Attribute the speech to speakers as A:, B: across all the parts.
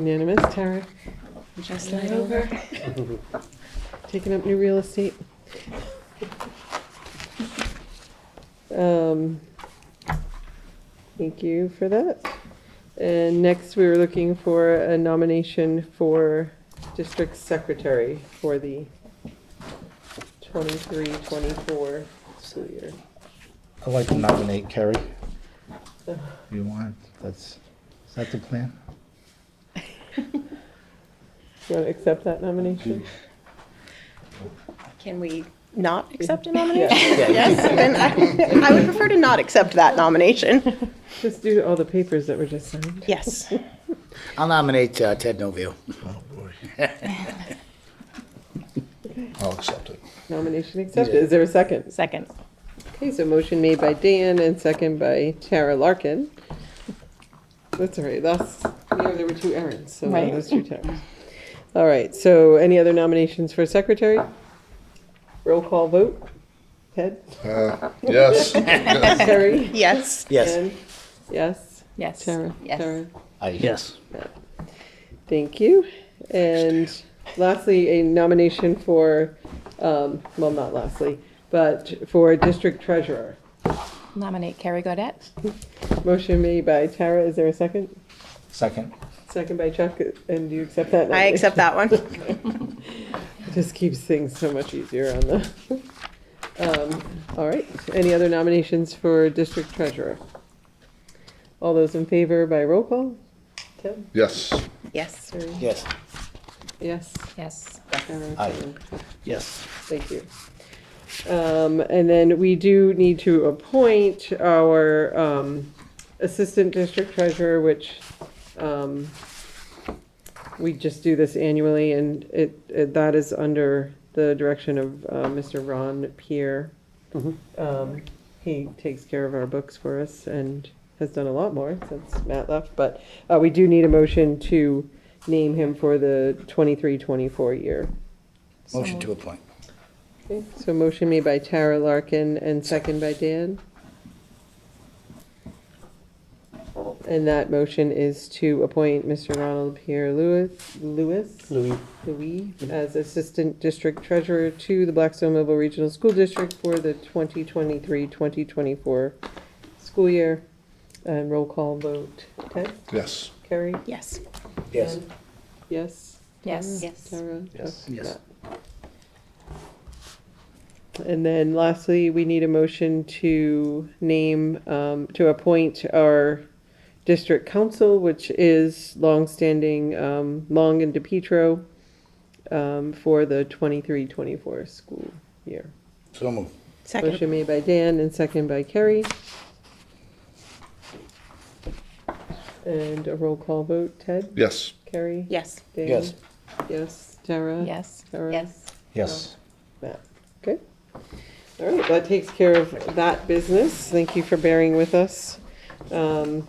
A: Unanimous, Tara?
B: Just slide over.
A: Taking up new real estate? Um, Thank you for that. And next, we were looking for a nomination for district secretary for the 23-24 school year.
C: I'd like to nominate Kerry. You want, that's, is that the plan?
A: Do you want to accept that nomination?
C: Mm-hmm.
B: Can we not accept a nomination?
A: Yeah,
B: Yes, then I, I would prefer to not accept that nomination.
A: Just do all the papers that were just signed.
B: Yes.
D: I'll nominate uh, Ted Novio.
C: I'll accept it.
A: Nomination accepted. Is there a second?
B: Second.
A: Okay, so motion made by Dan and second by Tara Larkin. That's all right, that's, you know, there were two errands, so
B: Right.
A: those two times. All right, so any other nominations for secretary? Roll call vote. Ted?
E: Yes.
A: Terry?
B: Yes.
D: Yes.
A: Ann? Yes?
B: Yes.
A: Tara? Tara?
D: Yes.
A: Thank you. And lastly, a nomination for, um, well, not lastly, but for district treasurer.
F: Nominate Carrie Godet.
A: Motion made by Tara, is there a second?
C: Second.
A: Second by Chuck, and do you accept that?
B: I accept that one.
A: It just keeps things so much easier on the, um, all right. Any other nominations for district treasurer? All those in favor by roll call? Tim?
E: Yes.
B: Yes.
D: Yes.
A: Yes.
F: Yes.
A: Sarah?
D: Aye. Yes.
A: Thank you. Um, and then we do need to appoint our, um, assistant district treasurer, which, um, we just do this annually and it, it- that is under the direction of, uh, Mr. Ron Pierre. Um, he takes care of our books for us and has done a lot more since Matt left, but, uh, we do need a motion to name him for the twenty-three, twenty-four year.
D: Motion to appoint.
A: Okay, So motion made by Tara Larkin and second by Dan. And that motion is to appoint Mr. Ronald Pierre Lewis, Lewis? Louis. Louis, as Assistant District Treasurer to the Blackstone Mobile Regional School District for the 2023-2024 school year. And roll call vote. Ted?
E: Yes.
A: Carrie?
B: Yes.
D: Yes.
A: Dan? Yes?
F: Yes.
B: Yes.
A: Tara?
C: Yes.
A: Okay.
D: Yes.
A: And then lastly, we need a motion to name, um, to appoint our district council, which is longstanding, um, Long and DePietro, um, for the 23-24 school year.
D: So moved.
B: Second.
A: Motion made by Dan and second by Kerry. And a roll call vote, Ted,
E: Yes.
A: Kerry?
B: Yes.
A: Dan?
D: Yes.
A: Yes, Tara?
F: Yes.
A: Tara?
C: Yes.
A: Matt. Okay. All right, that takes care of that business. Thank you for bearing with us. Um,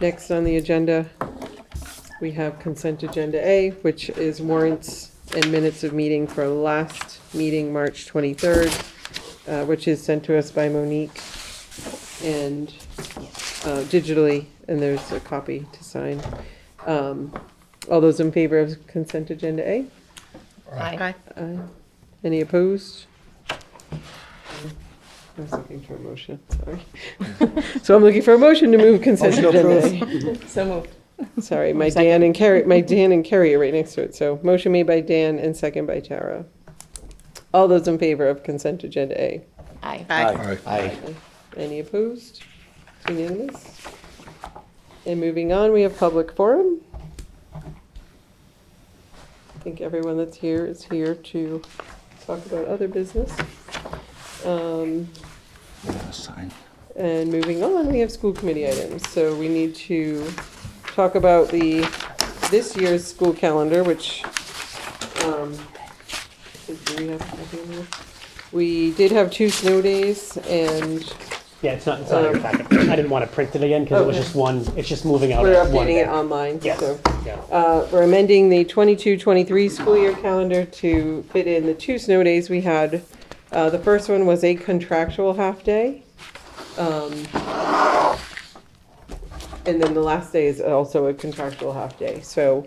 A: Next on the agenda, we have consent agenda A, which is warrants and minutes of meeting for last meeting, March 23rd, uh, which is sent to us by Monique and uh, digitally, and there's a copy to sign. Um, All those in favor of consent agenda A?
F: Aye.
A: Aye. Any opposed? I was looking for a motion, sorry. So I'm looking for a motion to move consent agenda.
B: So moved.
A: Sorry, my Dan and Carrie, my Dan and Carrie are right next to it, so motion made by Dan and second by Tara. All those in favor of consent agenda A?
F: Aye.
B: Aye.
E: Aye.
D: Aye.
A: Any opposed? It's Unanimous? And moving on, we have public forum. I think everyone that's here is here to talk about other business. Um,
C: We're gonna sign.
A: and moving on, we have school committee items. So we need to talk about the, this year's school calendar, which, um, do we have a copy of this? We did have two snow days and
G: Yeah, it's not, it's not in your packet. I didn't want to print it again because it was
A: Um, Okay.
G: just one, it's just moving out.
A: we're
G: at one
A: updating it
G: day.
A: online,
G: Yes,
A: so.
G: yeah.
A: Uh, we're amending the 22-23 school year calendar to fit in the two snow days we had. Uh, the first one was a contractual half-day. Um, And then the last day is also a contractual half-day, so